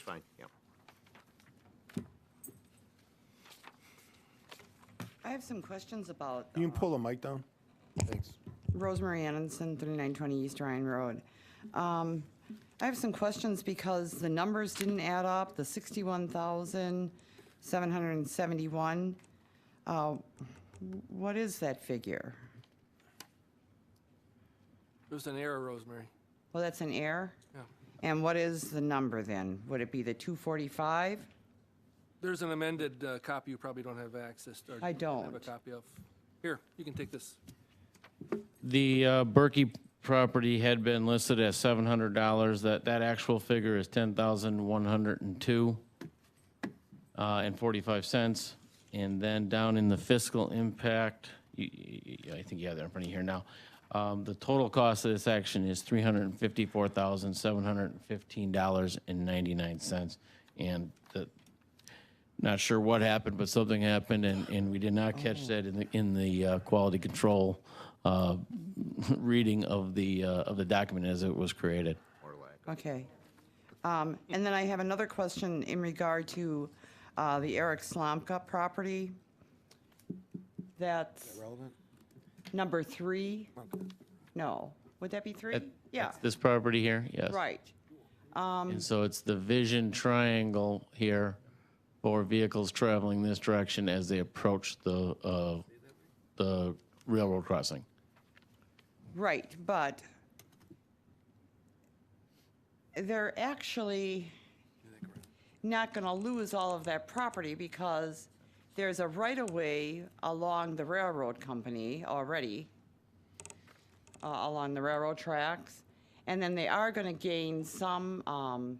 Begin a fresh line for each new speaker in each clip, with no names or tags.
fine, yeah.
I have some questions about um,
You can pull the mic down. Thanks.
Rosemary Anderson, 3920 East Ryan Road. Um, I have some questions because the numbers didn't add up, the 61,771. uh, What is that figure?
There's an error, Rosemary.
Well, that's an error?
Yeah.
And what is the number then? Would it be the 245?
There's an amended uh, copy you probably don't have access to. or
I
Have a
don't.
copy of. Here, you can take this.
The uh, Berkey property had been listed as seven hundred dollars. That, that actual figure is ten thousand one hundred and two uh, and forty-five cents. And then down in the fiscal impact, you- you- you- I think you have that in front of you here now. Um, The total cost of this action is three hundred and fifty-four thousand seven hundred and fifteen dollars and ninety-nine cents. And the, not sure what happened, but something happened, and, and we did not catch that in the, in the uh, quality control uh, reading of the, uh, of the document as it was created.
Or lack.
Okay. Um, And then I have another question in regard to uh, the Eric Slomka property. That's
Relevant?
number three? No. Would that be three? Yeah,
This property here, yes.
right.
And so it's the vision triangle here for vehicles traveling this direction as they approach the, uh, the railroad crossing.
Right, but they're actually not going to lose all of that property because there's a right-of-way along the railroad company already, uh, along the railroad tracks. And then they are going to gain some um,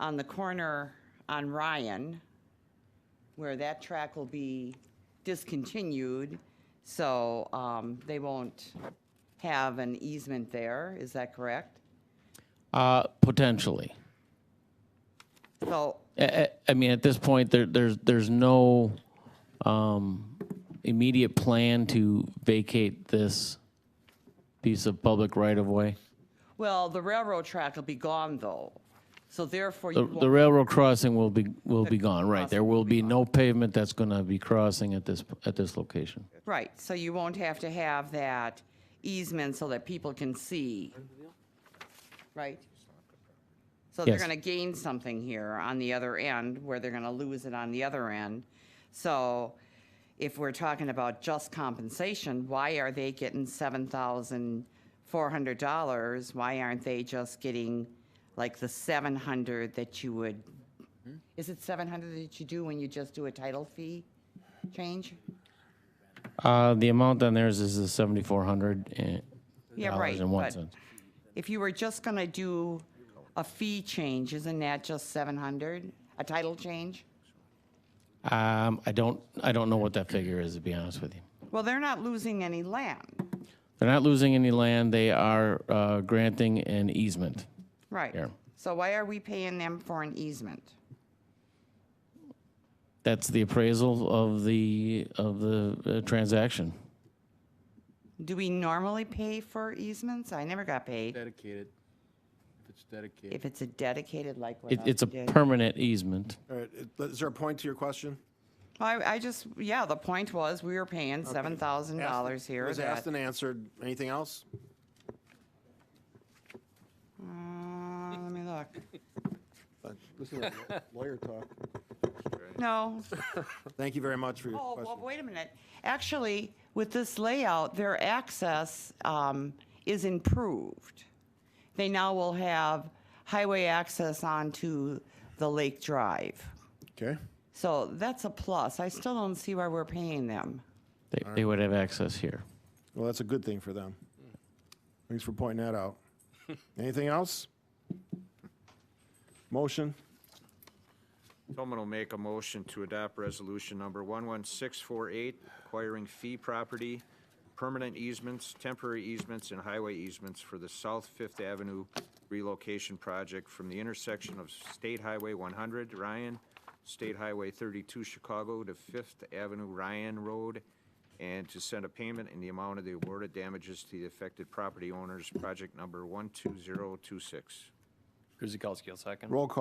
on the corner on Ryan, where that track will be discontinued, so um, they won't have an easement there, is that correct?
Uh, Potentially.
So,
I, I mean, at this point, there, there's, there's no um, immediate plan to vacate this piece of public right-of-way.
well, the railroad track will be gone, though, so therefore
The
you
the
won't,
railroad crossing will be, will be gone, right? There will be no pavement that's going to be crossing at this, at this location.
right, so you won't have to have that easement so that people can see, right? So they're
Yes.
going to gain something here on the other end, where they're going to lose it on the other end. So if we're talking about just compensation, why are they getting seven thousand four hundred dollars? Why aren't they just getting like the seven hundred that you would, is it seven hundred that you do when you just do a title fee change?
Uh, The amount on theirs is the $7,400
Yeah, right,
eh, and one
but-
cent.
If you were just going to do a fee change, isn't that just seven hundred, a title change?
Um, I don't, I don't know what that figure is, to be honest with you.
Well, they're not losing any land,
They're not losing any land. They are uh, granting an easement.
right?
Yeah.
So why are we paying them for an easement?
That's the appraisal of the, of the uh, transaction.
Do we normally pay for easements? I never got paid.
Dedicated, if it's dedicated.
If it's a dedicated, like what
It,
I
it's a
did.
permanent easement.
All right, it- is there a point to your question?
I, I just, yeah, the point was, we were paying seven thousand dollars
Asked- It
here.
was
that-
asked and answered. Anything else?
Uh, let me look.
Listen to that lawyer talk.
No,
Thank you very much for your
Oh,
question.
well, wait a minute. Actually, with this layout, their access um, is improved. They now will have highway access onto the Lake Drive.
Okay.
So that's a plus. I still don't see why we're paying them.
They, they would have access here.
Well, that's a good thing for them. Thanks for pointing that out. Anything else? Motion?
Someone will make a motion to adopt resolution number 11648, acquiring fee property, permanent easements, temporary easements, and highway easements for the South Fifth Avenue relocation project from the intersection of State Highway 100, Ryan, State Highway 32, Chicago, to Fifth Avenue, Ryan Road, and to send a payment in the amount of the awarded damages to the affected property owners, project number 12026.
Kuzikowski, second.
Roll call.